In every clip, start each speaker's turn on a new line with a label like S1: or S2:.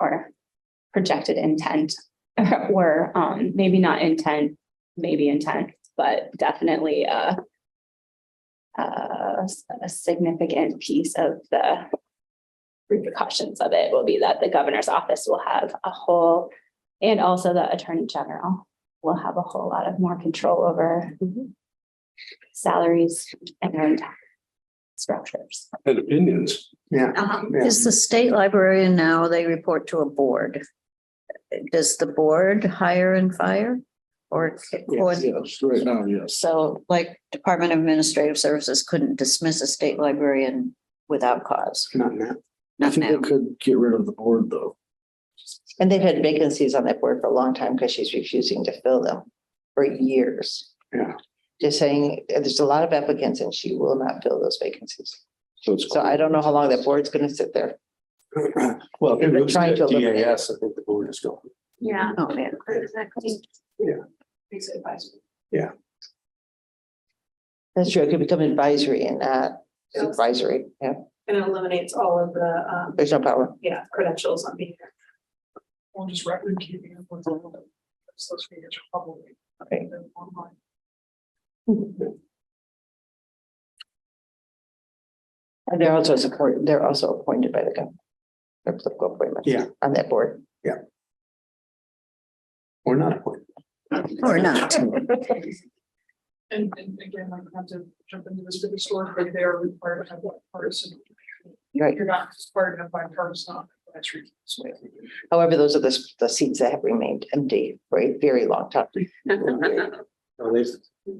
S1: or projected intent or um maybe not intent, maybe intent, but definitely a a a significant piece of the repercussions of it will be that the governor's office will have a whole and also the attorney general will have a whole lot of more control over salaries and structures.
S2: and opinions.
S3: Uh-huh.
S4: Is the state librarian now, they report to a board? Does the board hire and fire? Or, or,
S2: Yes, right now, yes.
S4: so like Department of Administrative Services couldn't dismiss a state librarian without cause?
S3: Not now.
S2: I
S4: Not
S2: think they
S4: now.
S2: could get rid of the board, though.
S5: And they've had vacancies on that board for a long time because she's refusing to fill them for years.
S3: Yeah.
S5: Just saying, uh, there's a lot of applicants and she will not fill those vacancies.
S2: So it's.
S5: So I don't know how long that board's gonna sit there.
S2: Well, if
S5: They've
S2: it
S5: been
S2: looks
S5: trying
S2: at
S5: to eliminate it.
S2: DAS, I think the board is going.
S1: Yeah.
S4: Oh, yeah.
S1: Exactly.
S5: That's true. It could become advisory and not supervisory. Yeah,
S6: And it eliminates all of the, um,
S5: there's no power.
S6: yeah, credentials on being there. Or just record keeping.
S5: Okay. And they're also support, they're also appointed by the government. They're political appointments.
S3: Yeah.
S5: On that board.
S3: Or not appointed.
S4: Or not.
S6: And, and again, I have to jump into this big story, but they are required to have one partisan.
S5: Right.
S6: You're not required to have bipartisan, that's ridiculous.
S5: However, those are the, s- the seats that have remained empty for a very long time.
S3: Well, they've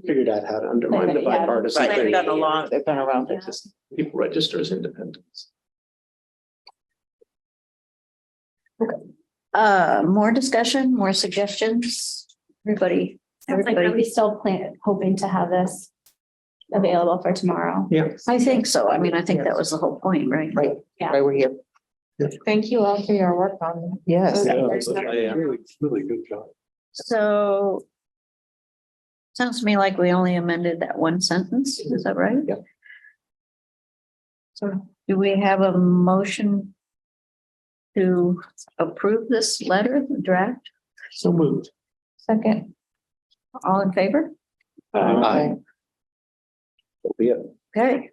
S3: figured out how to undermine the
S1: Yeah.
S3: bipartisan
S1: Right.
S3: thing.
S1: done a long-
S5: They've been around for
S1: Yeah.
S5: just
S3: People register as independents.
S4: Uh, more discussion, more suggestions? Everybody,
S1: Sounds like, are
S4: everybody?
S1: we still plan, hoping to have this available for tomorrow?
S3: Yeah.
S4: I think so. I mean, I think that was the whole point, right?
S5: Right,
S1: Yeah.
S5: right, we're here.
S3: Yeah.
S5: Thank you all for your work on. Yes.
S3: Yeah, really, really good job.
S4: So sounds to me like we only amended that one sentence. Is that right?
S3: Yep.
S4: So do we have a motion to approve this letter draft?
S3: So moved.
S5: Second.
S4: All in favor?
S3: Aye. Yeah.
S4: Okay.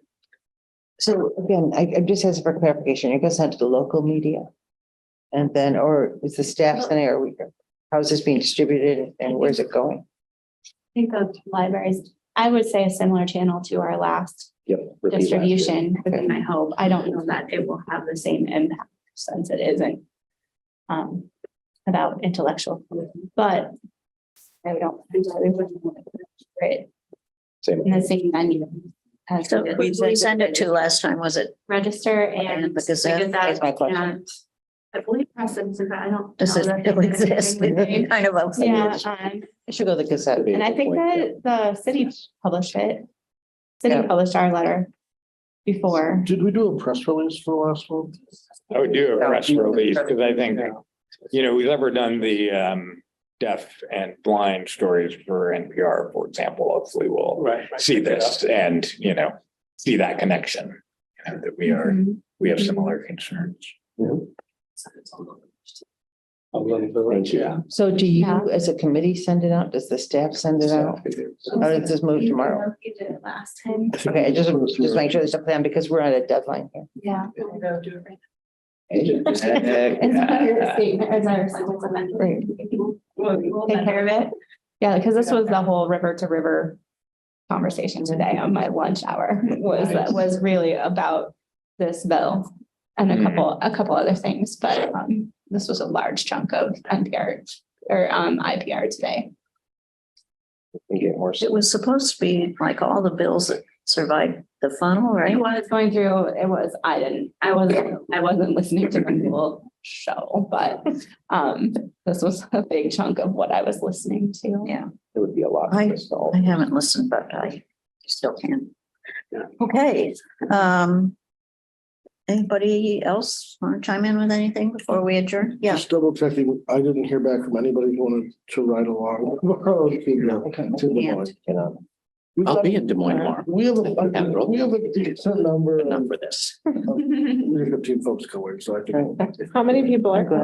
S5: So again, I, I just as for clarification, it goes out to the local media? And then, or is the staff sending, or we, how is this being distributed and where's it going?
S1: I think of libraries, I would say a similar channel to our last
S2: Yep.
S1: distribution, would be my hope. I don't know that it will have the same impact since it isn't um, about intellectual, but I don't, I wouldn't want to put it
S2: Same.
S1: in the same venue as
S4: So
S1: we
S4: we
S1: did
S4: we sent it to last time, was it?
S1: register and
S4: And the Gazette,
S1: the Gazette
S5: that's my question.
S1: and I believe press and Gazette, I don't.
S4: Does
S1: know
S4: it
S1: that
S4: still
S1: they did
S4: exist?
S1: anything with it.
S4: Kind of a.
S1: Yeah, um,
S5: It should go to the Gazette.
S1: and I think that the city published it. City
S5: Yeah.
S1: published our letter before.
S2: Did we do a press release for last one?
S7: I would do a
S5: Yeah.
S7: press release because I think, you know, we've ever done the um deaf and blind stories for NPR, for example. Hopefully we'll
S3: Right.
S7: see this and, you know, see that connection. you know, That we are, we have similar concerns.
S3: A little bit, yeah.
S5: So do
S1: Yeah.
S5: you, as a committee, send it out? Does the staff send it out? Or does this move tomorrow?
S1: You did it last time,
S5: Okay, I just, just make sure there's a plan because we're on a deadline here.
S1: yeah. It's not your
S7: Yeah.
S1: statement, it's not your sentence amendment.
S5: Right.
S1: Take care of it. Yeah, because this was the whole river to river conversation today on my lunch hour was, that was really about this bill and a
S7: Hmm.
S1: couple, a couple other things, but um, this was a large chunk of NPR or um, IPR today.
S4: It was supposed to be like all the bills that survived the funnel,
S1: It
S4: right?
S1: was going through, it was, I didn't, I wasn't, I wasn't listening to the whole show, but um, this was a big chunk of what I was listening to.
S4: Yeah.
S2: It would be a lot.
S4: I- I haven't listened, but I still can.
S3: Yeah.
S4: Okay, um. Anybody else want to chime in with anything before we adjourn? Yeah,
S2: Just double checking, I didn't hear back from anybody who wanted to ride along. To Des
S4: Yeah.
S2: Moines. We've
S8: I'll
S2: got-
S8: be in Des Moines tomorrow.
S2: We have, a
S8: Emerald.
S2: we have a decent number
S8: Enough
S2: of
S8: for this.
S2: leadership team folks going, so I think.
S5: Right.
S6: How many people are?